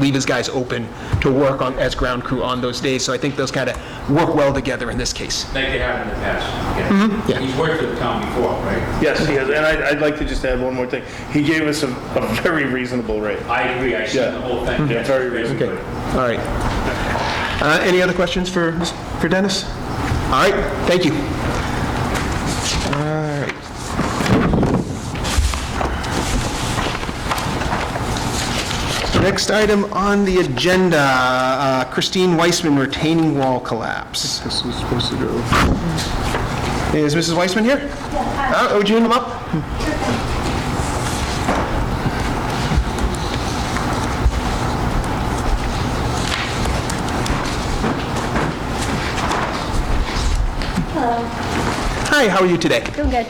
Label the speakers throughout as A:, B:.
A: leave his guys open to work on, as ground crew on those days. So I think those kind of work well together in this case.
B: like they have in the past.
A: Mm-hmm. yeah.
B: He's worked for the town before, right?
C: Yes, he has, and I- I'd like to just add one more thing. He gave us a a very reasonable rate.
B: I agree, I see the
C: Yeah.
B: whole thing.
C: Yeah, very reasonable.
A: Okay, all right. Uh, Any other questions for, for Dennis? All right, thank you. All right. Next item on the agenda, uh, Christine Weissman retaining wall collapse. This was supposed to go. Is Mrs. Weissman here? Uh, Would you hand them up? Hi, how are you today?
D: Doing good.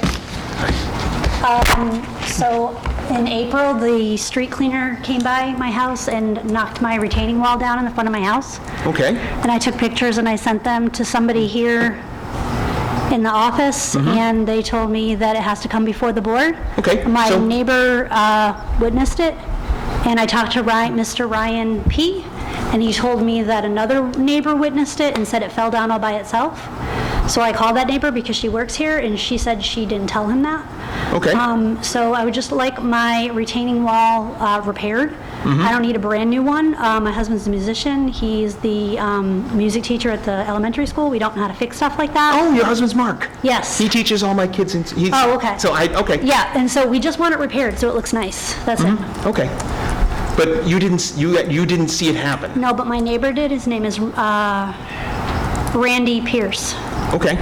D: Um, So in April, the street cleaner came by my house and knocked my retaining wall down in the front of my house.
A: Okay.
D: And I took pictures and I sent them to somebody here in the office, and they told me that it has to come before the board.
A: Mm-hmm. Okay,
D: My
A: so-
D: neighbor uh, witnessed it, and I talked to Ryan, Mr. Ryan P., and he told me that another neighbor witnessed it and said it fell down all by itself. So I called that neighbor because she works here, and she said she didn't tell him that.
A: Okay.
D: Um, So I would just like my retaining wall uh, repaired.
A: Mm-hmm.
D: I don't need a brand-new one. Uh, My husband's a musician, he's the um, music teacher at the elementary school, we don't know how to fix stuff like that.
A: Oh, your husband's Mark.
D: Yes.
A: He teaches all my kids in. he's-
D: Oh, okay.
A: So I, okay.
D: Yeah, and so we just want it repaired, so it looks nice, that's it.
A: Okay. But you didn't, s- you, you didn't see it happen?
D: No, but my neighbor did, his name is uh, Randy Pierce.
A: Okay.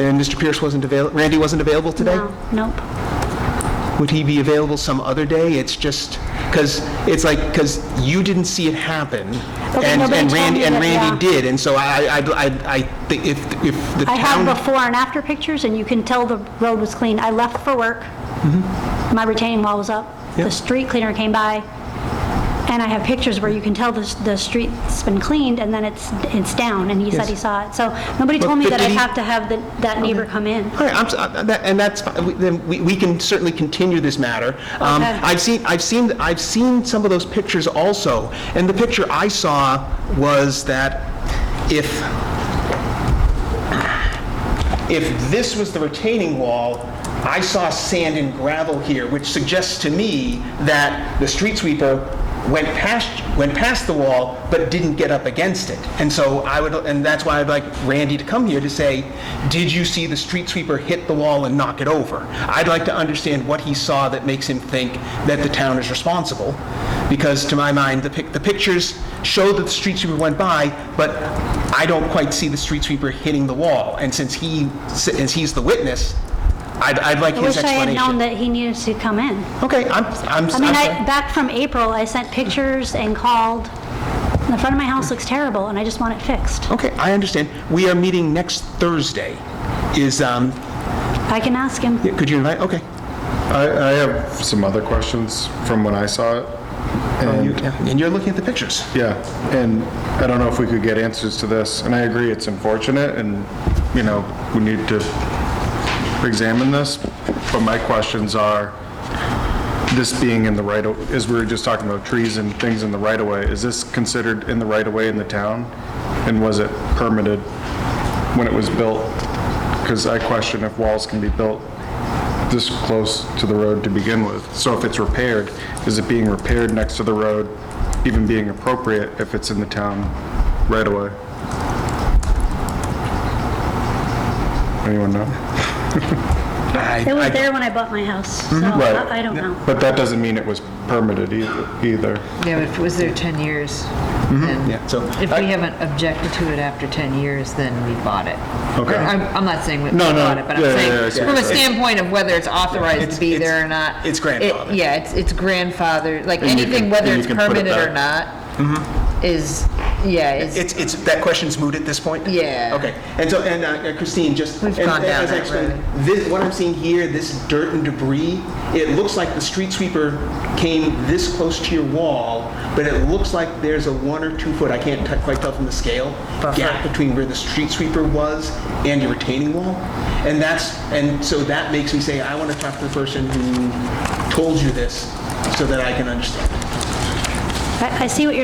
A: And Mr. Pierce wasn't avail, Randy wasn't available today?
D: No, Nope.
A: Would he be available some other day? It's just, because, it's like, because you didn't see it happen.
D: But
A: and-
D: nobody
A: and
D: told
A: Randy-
D: me
A: And
D: that,
A: Randy
D: yeah.
A: did, and so I, I, I, I think if, if the
D: I
A: town...
D: have before and after pictures, and you can tell the road was clean. I left for work,
A: Mm-hmm.
D: my retaining wall was up,
A: Yeah.
D: the street cleaner came by, and I have pictures where you can tell the, s- the street's been cleaned, and then it's, it's down, and he said
A: Yes.
D: he saw it. So nobody told me
A: but
D: that
A: did
D: I'd
A: he-
D: have to have the- that neighbor come in.
A: All right, I'm s- uh, that- and that's, fi- we- then we we can certainly continue this matter. Um,
D: Okay.
A: I've seen, I've seen, I've seen some of those pictures also, and the picture I saw was that if, if this was the retaining wall, I saw sand and gravel here, which suggests to me that the street sweeper went past, went past the wall, but didn't get up against it. And so I would, and that's why I'd like Randy to come here to say, did you see the street sweeper hit the wall and knock it over? I'd like to understand what he saw that makes him think that the town is responsible, because to my mind, the pic, the pictures show that the street sweeper went by, but I don't quite see the street sweeper hitting the wall. And since he, since he's the witness, I'd, I'd like
D: I
A: his
D: wish I had
A: explanation.
D: known that he needed to come in.
A: Okay, I'm, I'm, I'm
D: I mean,
A: sorry.
D: I, back from April, I sent pictures and called. The front of my house looks terrible, and I just want it fixed.
A: Okay, I understand. We are meeting next Thursday. Is, um,
D: I can ask him.
A: yeah, could you invite, okay.
E: I, I have some other questions from when I saw it.
A: You-
E: And,
A: yeah, And you're looking at the pictures.
E: yeah, and I don't know if we could get answers to this, and I agree, it's unfortunate, and, you know, we need to examine this, but my questions are, this being in the right, o- as we were just talking about trees and things in the right of way, is this considered in the right of way in the town? And was it permitted when it was built? Because I question if walls can be built this close to the road to begin with. So if it's repaired, is it being repaired next to the road, even being appropriate if it's in the town right away? Anyone know?
A: I-
D: It
A: I- Mm-hmm.
D: was there when I bought my house, so
E: Right.
D: Oh, I I don't know.
E: But that doesn't mean it was permitted either. either.
F: Yeah, but if it was there 10 years,
E: Mm-hmm.
F: then,
A: Yeah, so
F: if
A: I-
F: we haven't objected to it after 10 years, then we bought it.
E: Okay.
F: I'm I'm not saying we we
E: No, no,
F: bought it, but I'm
E: yeah, yeah, yeah, I
F: saying,
E: see what
F: from a
E: you're saying.
F: standpoint of whether it's authorized
A: It's-
F: to be
A: it's-
F: there or not.
A: it's
F: it-
A: grandfathered.
F: Yeah, it's it's grandfathered, like
E: And you
F: anything,
E: can-
F: whether
E: and you
F: it's
E: can put it Mm-hmm.
F: permitted or not, is, yeah, is,
A: It's, it's, that question's moot at this point?
F: Yeah.
A: Okay, and so, and uh, Christine, just.
F: We've
A: and-
F: gone
A: and
F: down
A: as I
F: that
A: explained,
F: road.
A: This, what I'm seeing here, this dirt and debris, it looks like the street sweeper came this close to your wall, but it looks like there's a one or two foot, I can't t- quite tell from the scale, gap between where the street sweeper was and your retaining wall. And that's, and so that makes me say, I want to talk to the person who told you this so that I can understand.
D: I I see what you're